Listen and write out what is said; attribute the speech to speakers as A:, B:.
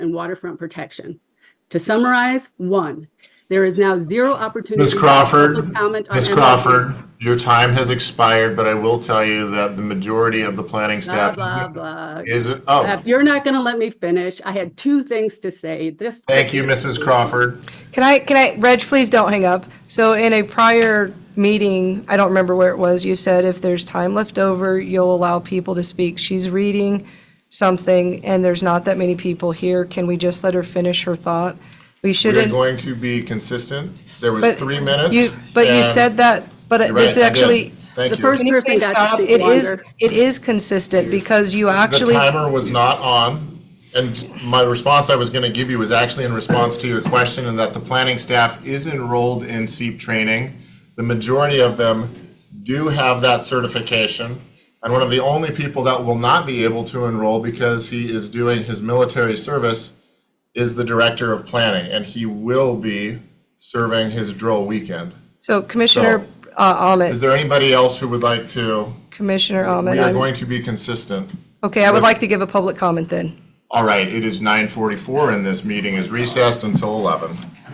A: and waterfront protection. To summarize, one, there is now zero opportunity.
B: Ms.
A: for
B: Crawford,
A: public comment on
B: Ms.
A: MLK.
B: Crawford, your time has expired, but I will tell you that the majority of the planning
A: Blah,
B: staff
A: blah, blah.
B: is, is- oh,
A: If you're not going to let me finish, I had two things to say. This,
B: thank you, Mrs. Crawford.
C: Can I, can I, Reg, please don't hang up. So in a prior meeting, I don't remember where it was, you said if there's time left over, you'll allow people to speak. She's reading something and there's not that many people here. Can we just let her finish her thought? We
B: We're
C: shouldn't.
B: going to be consistent. There was
C: but
B: three minutes.
C: you- But you
B: and-
C: said that, but
B: You're
C: this
B: right, I did.
C: actually.
B: Thank
A: the
B: you.
A: first
C: Can you
A: person
C: please
A: got to
C: stop?
A: speak
C: It is,
A: longer.
C: it is consistent because you actually.
B: The timer was not on, and my response I was going to give you was actually in response to your question, and that the planning staff is enrolled in SEEP training. The majority of them do have that certification, and one of the only people that will not be able to enroll because he is doing his military service is the director of planning, and he will be serving his drill weekend.
C: So Commissioner uh,
B: Is
C: Ahmet,
B: there anybody else who would like to?
C: Commissioner Ahmet.
B: We are
C: I'm-
B: going to be consistent.
C: Okay, I would like to give a public comment then.
B: All right, it is 9:44 and this meeting is recessed until 11.